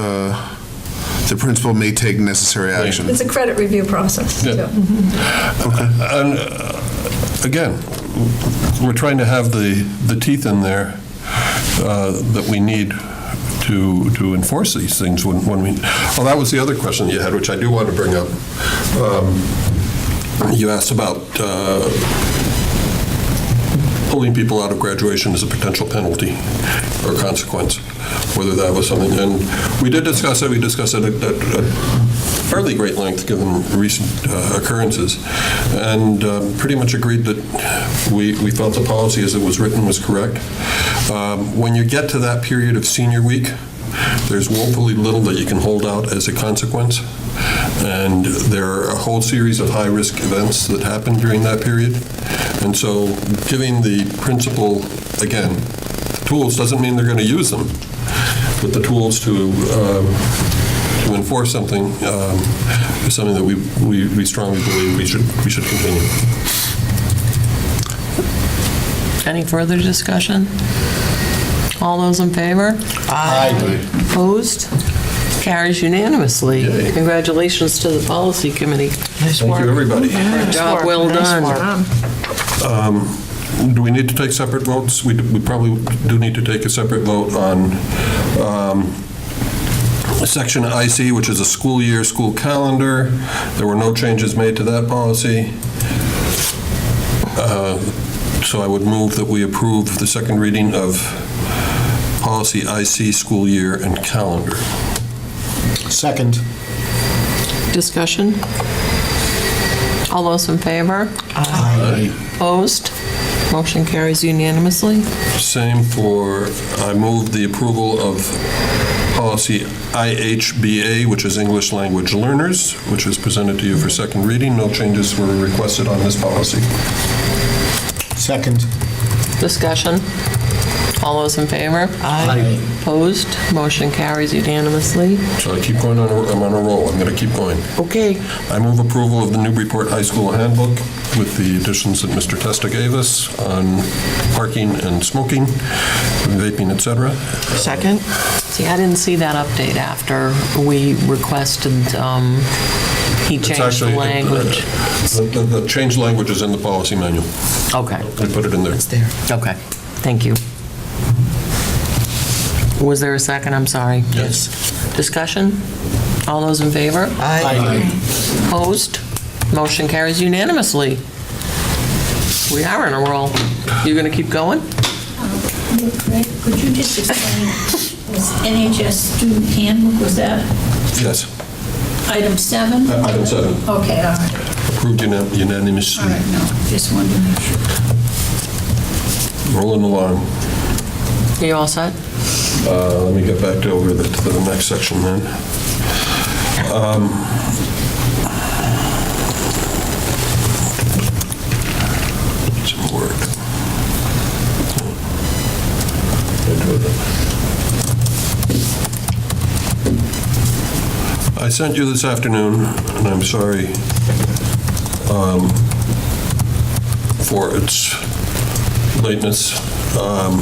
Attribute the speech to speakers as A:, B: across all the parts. A: uh, the principal may take necessary action.
B: It's a credit review process,
C: Yeah.
B: too.
C: And uh, again, we're trying to have the, the teeth in there uh, that we need to, to enforce these things when, when we, oh, that was the other question you had, which I do want to bring up. Um, You asked about uh, pulling people out of graduation as a potential penalty or consequence, whether that was something, and we did discuss it, we discussed it at at fairly great length, given recent uh, occurrences, and um, pretty much agreed that we we felt the policy as it was written was correct. Um, When you get to that period of senior week, there's woefully little that you can hold out as a consequence, and there are a whole series of high-risk events that happen during that period. And so giving the principal, again, tools doesn't mean they're going to use them, but the tools to um, to enforce something um, is something that we we we strongly believe we should we should continue.
D: Any further discussion? All those in favor?
C: Aye.
D: Opposed? Carries unanimously.
C: Yay.
D: Congratulations to the policy committee. Nice
C: Thank you, everybody.
D: Job well done.
B: Mm-hmm.
C: Do we need to take separate votes? We we probably do need to take a separate vote on um, section IC, which is a school year, school calendar. There were no changes made to that policy. Uh, So I would move that we approve the second reading of policy IC, school year and calendar.
E: Second.
D: Discussion? All those in favor? Opposed? Motion carries unanimously.
C: Same for, I move the approval of policy IHBA, which is English Language Learners, which was presented to you for second reading. No changes were requested on this policy.
E: Second.
D: Discussion? All those in favor?
E: Aye.
D: Opposed? Motion carries unanimously.
C: So I keep going on, a- I'm on a roll, I'm going to keep going.
D: Okay.
C: I move approval of the Newburyport High School handbook with the additions that Mr. Testa gave us on parking and smoking, vaping, et cetera.
D: Second. See, I didn't see that update after we requested, um, he
C: It's
D: changed the
C: actually-
D: language.
C: The- The the changed language is in the policy manual.
D: Okay,
C: I put it in there.
D: okay, thank you. Was there a second? I'm sorry.
C: Yes.
D: Discussion? All those in favor?
E: Aye.
D: Opposed? Motion carries unanimously. We are in a roll. You going to keep going?
F: Greg, could you just explain, was NHS student handbook, was that
C: Yes.
F: item seven?
C: Item seven.
F: Okay, all right,
C: Approved unan-
F: all
C: unanimously.
F: right, no, just wanted to make sure.
C: Rolling along.
D: Are you all set?
C: Uh, Let me get back to over the- to the next section then. Um, it's in Word. I sent you this afternoon, and I'm sorry um, for its lateness. Um,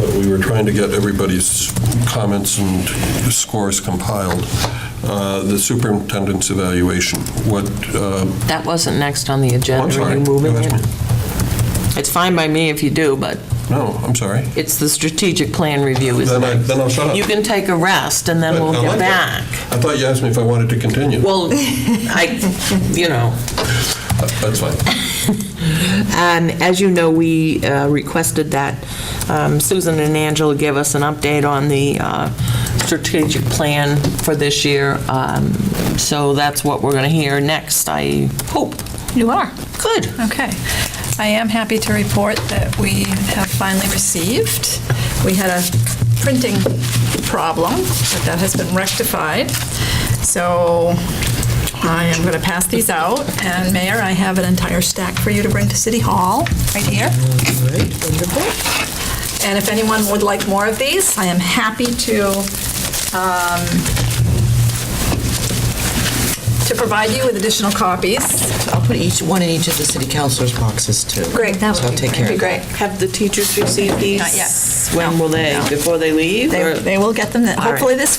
C: but we were trying to get everybody's comments and scores compiled. Uh, The superintendent's evaluation, what, uh,
D: That wasn't next on the
C: Oh, I'm
D: agenda. Are
C: sorry.
D: you moving
C: You
D: it?
C: asked me.
D: It's fine by me if you do, but
C: No, I'm sorry.
D: it's the strategic plan review, isn't it?
C: Then I- then I'll shut up.
D: You can take a rest, and then we'll
C: I
D: get
C: like that.
D: back.
C: I thought you asked me if I wanted to continue.
D: Well, I, you know,
C: That's fine.
G: And Um, as you know, we uh, requested that um, Susan and Angela give us an update on the uh, strategic plan for this year. Um, So that's what we're going to hear next, I hope.
H: You are.
G: Good.
H: Okay. I am happy to report that we have finally received. We had a printing problem, but that has been rectified. So I am going to pass these out. And Mayor, I have an entire stack for you to bring to City Hall, right here. And if anyone would like more of these, I am happy to, um, to provide you with additional copies.
I: I'll put each, one in each of the city councilors' boxes, too.
H: Great, that
I: So I'll
H: would be
I: take care
H: that'd
I: of
H: be
I: that.
H: great.
G: Have the teachers received these?
H: Not yet.
G: When will they, before they leave?
H: They
G: or-
H: they will get them,
G: right.
H: hopefully this